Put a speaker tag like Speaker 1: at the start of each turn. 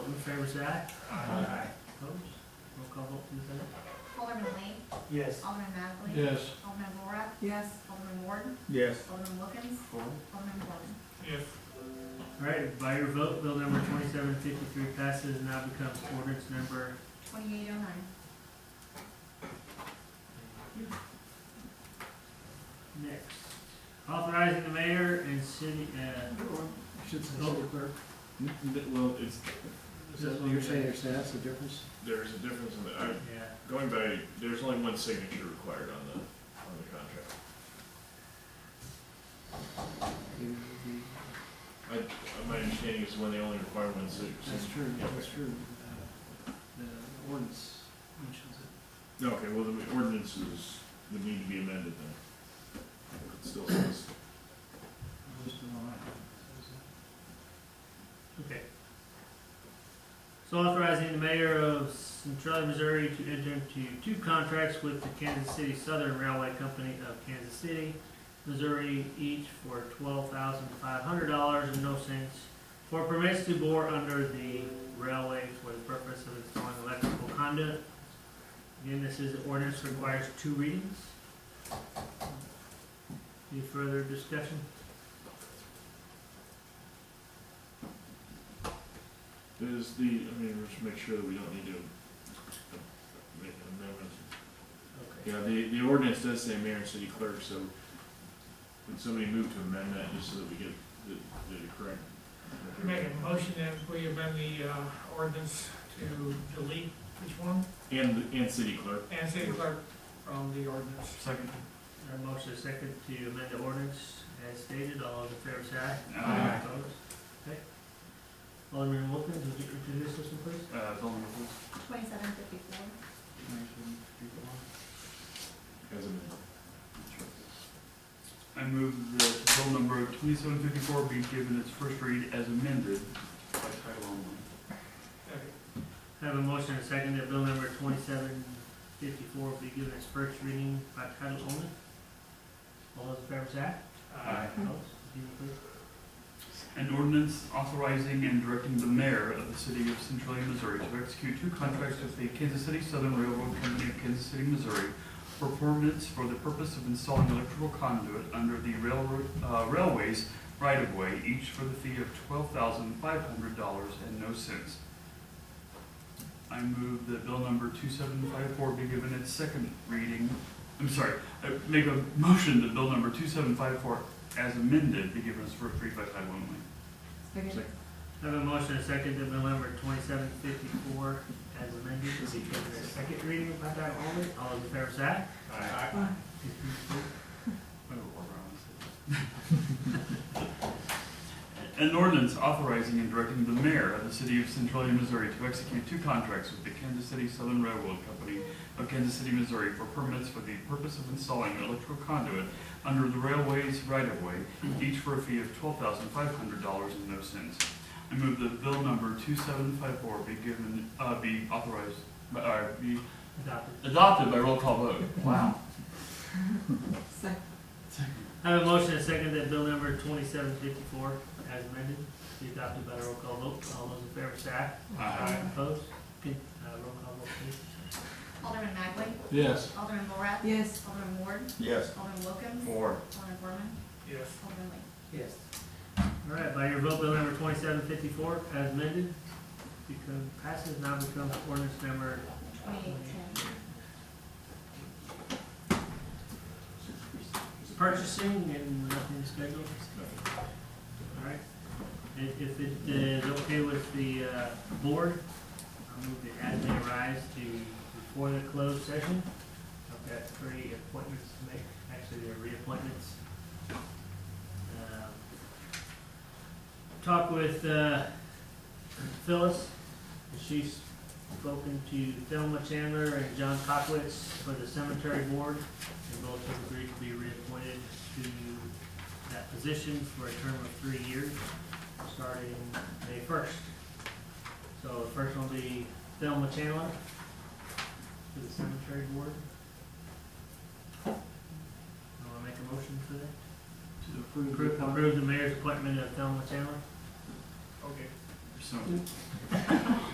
Speaker 1: favor say aye. Aye. Opposed? Roll call vote, please, Lynette.
Speaker 2: Alderman Lee.
Speaker 1: Yes.
Speaker 2: Alderman Magley.
Speaker 3: Yes.
Speaker 2: Alderman Laura.
Speaker 4: Yes.
Speaker 2: Alderman Ward.
Speaker 5: Yes.
Speaker 2: Alderman Wilkins.
Speaker 1: Four.
Speaker 2: Alderman Gordon.
Speaker 3: Yes.
Speaker 1: All right, by your vote, bill number twenty-seven fifty-three passes and now becomes ordinance number,
Speaker 2: Twenty-eight oh nine.
Speaker 1: next. Authorizing the mayor and city, uh,
Speaker 4: Should
Speaker 1: say city
Speaker 4: clerk.
Speaker 5: N- n- Well, it's,
Speaker 1: This one. You're saying
Speaker 4: there's, that's the difference?
Speaker 5: there's a difference in the, I,
Speaker 1: yeah.
Speaker 5: going by, there's only one signature required on the, on the contract. I, I- my understanding is when they only require one signature.
Speaker 4: That's true,
Speaker 5: Yeah.
Speaker 4: that's true. Uh, The ordinance mentions it.
Speaker 5: No, Okay, well, the ordinances would need to be amended then. It still says,
Speaker 4: Just the line. Says
Speaker 1: Okay. So authorizing the mayor of Centralia, Missouri to enter into two contracts with the Kansas City Southern Railway Company of Kansas City, Missouri, each for twelve thousand five hundred dollars and no cents for permits to bore under the railway for the purpose of installing electrical conduit. Again, this is, ordinance requires two readings. Any further discussion?
Speaker 5: is the, I mean, we should make sure that we don't need to uh, make an amendment.
Speaker 1: Okay.
Speaker 5: Yeah, the, the ordinance does say mayor and city clerk, so would somebody move to amend that just so that we get the, the correct?
Speaker 6: Make a motion that we amend the uh, ordinance to delete which one,
Speaker 5: And, and city clerk.
Speaker 6: and city clerk from the ordinance.
Speaker 5: Second.
Speaker 1: Our motion is second to amend the ordinance as stated. All those in favor say aye.
Speaker 5: Aye.
Speaker 1: Opposed? Okay. Alderman Wilkins, would you introduce this one, please?
Speaker 5: Uh,
Speaker 2: Twenty-seven fifty-four.
Speaker 5: As amended.
Speaker 7: I move that bill number twenty-seven fifty-four be given its first read as amended by title only.
Speaker 6: Okay.
Speaker 1: I have a motion and a second that bill number twenty-seven fifty-four be given its first reading by title only. All those in favor say aye.
Speaker 6: Uh,
Speaker 1: Opposed? Would you please?
Speaker 7: An ordinance authorizing and directing the mayor of the city of Centralia, Missouri to execute two contracts with the Kansas City Southern Railroad Company of Kansas City, Missouri for permits for the purpose of installing electrical conduit under the railroad, uh, railways right-of-way, each for the fee of twelve thousand five hundred dollars and no cents. I move that bill number two seven five four be given its second reading, I'm sorry, I make a motion that bill number two seven five four as amended be given its first read by title only.
Speaker 4: it.
Speaker 5: Second.
Speaker 1: I have a motion and a second that bill number twenty-seven fifty-four as amended be given its second reading by title only. All those in favor say aye.
Speaker 7: An ordinance authorizing and directing the mayor of the city of Centralia, Missouri to execute two contracts with the Kansas City Southern Railroad Company of Kansas City, Missouri for permits for the purpose of installing electrical conduit under the railway's right-of-way, each for a fee of twelve thousand five hundred dollars and no cents. I move that bill number two seven five four be given, uh, be authorized, uh, be
Speaker 1: Adopted.
Speaker 7: adopted by roll call vote. Wow.
Speaker 4: Second.
Speaker 1: I have a motion and a second that bill number twenty-seven fifty-four as amended be adopted by a roll call vote. All those in favor say aye. Opposed? Can, uh, roll call vote please.
Speaker 2: Alderman Magley.
Speaker 3: Yes.
Speaker 2: Alderman Laura.
Speaker 4: Yes.
Speaker 2: Alderman Ward.
Speaker 5: Yes.
Speaker 2: Alderman Wilkins.
Speaker 5: Four.
Speaker 2: Alderman Gorman.
Speaker 6: Yes.
Speaker 2: Alderman Lee.
Speaker 4: Yes.
Speaker 1: All right, by your vote, bill number twenty-seven fifty-four as amended become, passes now becomes ordinance number.
Speaker 2: Twenty-eight ten.
Speaker 1: Purchasing and nothing scheduled. All right. If, if it uh, is okay with the, uh, board, I'll move that as they arise to, before the closed session. I've got three appointments to make, actually, they're reappointments. Um, Talk with, uh, Phyllis, she's spoken to Thelma Chandler and John Cockwitz for the cemetery board. And both have agreed to be reappointed to that position for a term of three years, starting May first. So the first one will be Thelma Chandler to the cemetery board. You wanna make a motion for that?
Speaker 7: To approve.
Speaker 1: Approve, approve the mayor's appointment of Thelma Chandler?
Speaker 6: Okay.
Speaker 7: So-